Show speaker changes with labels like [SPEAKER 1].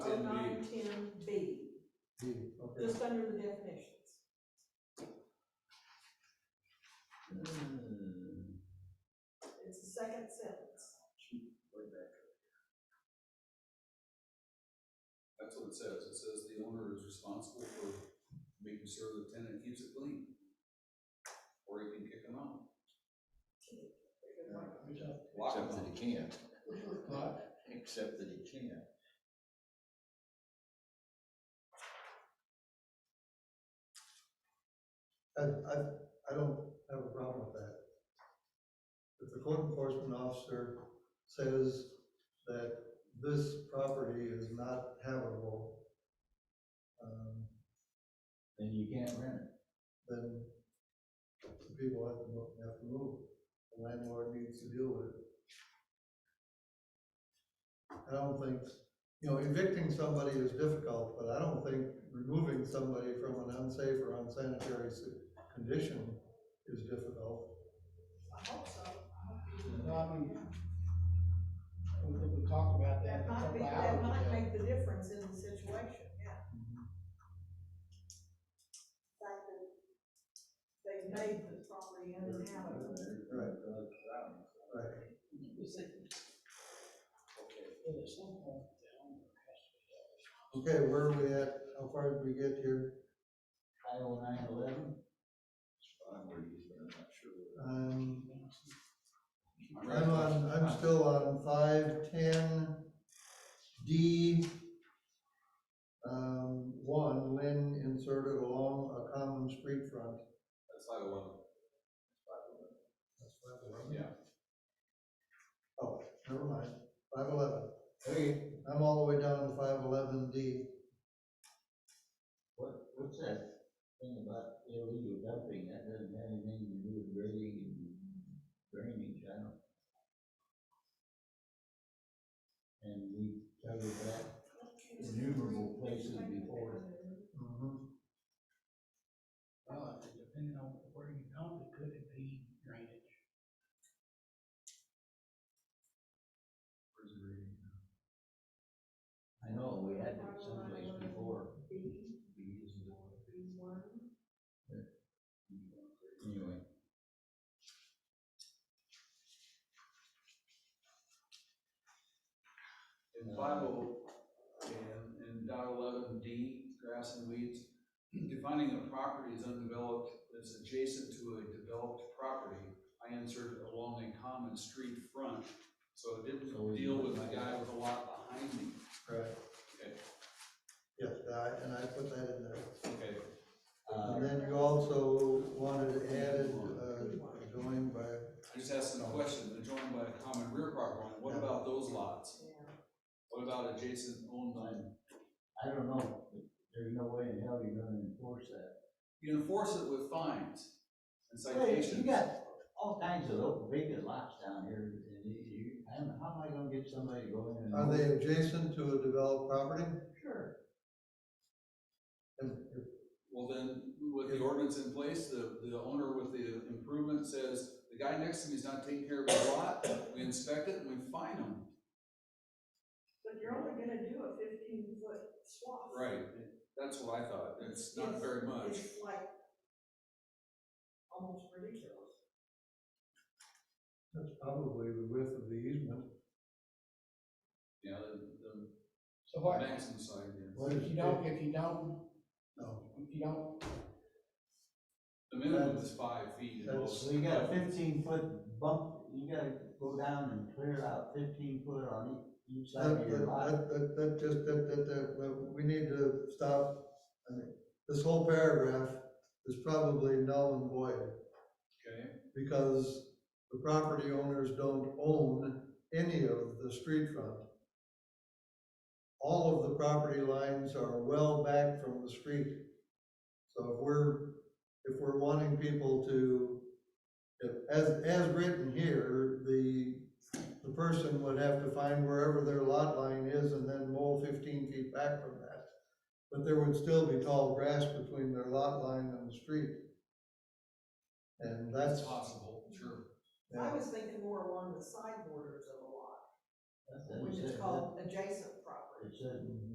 [SPEAKER 1] it's under the definitions.
[SPEAKER 2] Hmm.
[SPEAKER 1] It's the second sentence.
[SPEAKER 3] That's what it says. It says the owner is responsible for making sure the tenant keeps it clean. Or you can kick them out. Lock them
[SPEAKER 2] Except that
[SPEAKER 3] out.
[SPEAKER 2] he can't. Except that he can't.
[SPEAKER 4] I, I, I don't have a problem with that. If the code enforcement officer says that this property is not habitable, um,
[SPEAKER 2] Then you can't rent it.
[SPEAKER 4] then the people have to, mo- have to move. The landlord needs to deal with it. I don't think, you know, evicting somebody is difficult, but I don't think removing somebody from an unsafe or unsanitary s- condition is difficult.
[SPEAKER 1] I hope so.
[SPEAKER 5] Probably, we we talked about that.
[SPEAKER 1] That might be,
[SPEAKER 5] a couple
[SPEAKER 1] that
[SPEAKER 5] hours
[SPEAKER 1] might
[SPEAKER 5] ago.
[SPEAKER 1] make the difference in the situation, yeah.
[SPEAKER 2] Mm-hmm.
[SPEAKER 1] Fact that they made the property uninhabitable.
[SPEAKER 4] Right. Right.
[SPEAKER 5] Yeah, there's some point down there.
[SPEAKER 4] Okay, where are we at? How far did we get here?
[SPEAKER 2] Five oh nine eleven?
[SPEAKER 3] I'm ready, but I'm not sure.
[SPEAKER 4] Um,
[SPEAKER 3] I'm ready.
[SPEAKER 4] I'm on, I'm still on five ten D. Um, one, Lynn inserted along a common street front.
[SPEAKER 3] That's five oh one.
[SPEAKER 4] That's five eleven.
[SPEAKER 3] Yeah.
[SPEAKER 4] Oh, never mind, five eleven.
[SPEAKER 2] Hey,
[SPEAKER 4] I'm all the way down to five eleven D.
[SPEAKER 2] what, what's that thing about illegal dumping? That doesn't have anything to do with grading and drainage, I don't. And we covered that. Innumerable places before.
[SPEAKER 4] Mhm.
[SPEAKER 5] Well, it depending on where you dump it, could it be drainage?
[SPEAKER 2] I know, we had it someplace before.
[SPEAKER 1] B,
[SPEAKER 2] We used it.
[SPEAKER 1] B one.
[SPEAKER 2] Anyway.
[SPEAKER 3] In five oh, and, and dot eleven D, grass and weeds, defining a property as undeveloped is adjacent to a developed property. I inserted along a common street front, so it didn't deal with the guy with a lot behind me.
[SPEAKER 4] Right.
[SPEAKER 3] Okay.
[SPEAKER 4] Yes, I- and I put that in there.
[SPEAKER 3] Okay,
[SPEAKER 2] Uh,
[SPEAKER 4] And then you also wanted added, uh, joined by
[SPEAKER 3] I just asked them a question, they're joined by a common rear property line, what about those lots?
[SPEAKER 1] Yeah.
[SPEAKER 3] What about adjacent owned land?
[SPEAKER 2] I don't know, but there's no way in hell you're gonna enforce that.
[SPEAKER 3] You enforce it with fines and
[SPEAKER 2] You
[SPEAKER 3] citations.
[SPEAKER 2] got all kinds of open vacant lots down here, and you- you, I don't know, how am I gonna get somebody to go in and?
[SPEAKER 4] Are they adjacent to a developed property?
[SPEAKER 2] Sure.
[SPEAKER 4] And if-
[SPEAKER 3] Well, then, with the ordinance in place, the, the owner with the improvement says, the guy next to me is not taking care of his lot, we inspect it and we fine him.
[SPEAKER 1] But you're only gonna do a fifteen foot swath.
[SPEAKER 3] Right, that's what I thought, it's not very much.
[SPEAKER 1] It's like almost ridiculous.
[SPEAKER 4] That's probably the width of the easement.
[SPEAKER 3] Yeah, the,
[SPEAKER 5] So
[SPEAKER 3] the
[SPEAKER 5] what,
[SPEAKER 3] maximum side, yeah.
[SPEAKER 5] if you don't, if you don't,
[SPEAKER 4] No,
[SPEAKER 5] if you don't,
[SPEAKER 3] The minimum is five feet at most.
[SPEAKER 2] So you got a fifteen foot bump, you gotta go down and clear out fifteen foot on each- each side
[SPEAKER 4] that,
[SPEAKER 2] of your lot.
[SPEAKER 4] that, that, that just, that, that, that, that- we need to stop. I mean, This whole paragraph is probably null and void
[SPEAKER 3] Okay,
[SPEAKER 4] because the property owners don't own any of the street front. All of the property lines are well back from the street. So if we're, if we're wanting people to, if- as, as written here, the, the person would have to find wherever their lot line is and then mow fifteen feet back from that. But there would still be tall grass between their lot line and the street. And
[SPEAKER 3] that's
[SPEAKER 4] that's,
[SPEAKER 3] possible, sure.
[SPEAKER 1] I was thinking more along the side borders of a lot,
[SPEAKER 2] That's- that's-
[SPEAKER 1] which is
[SPEAKER 2] that-
[SPEAKER 1] called adjacent property.
[SPEAKER 2] It said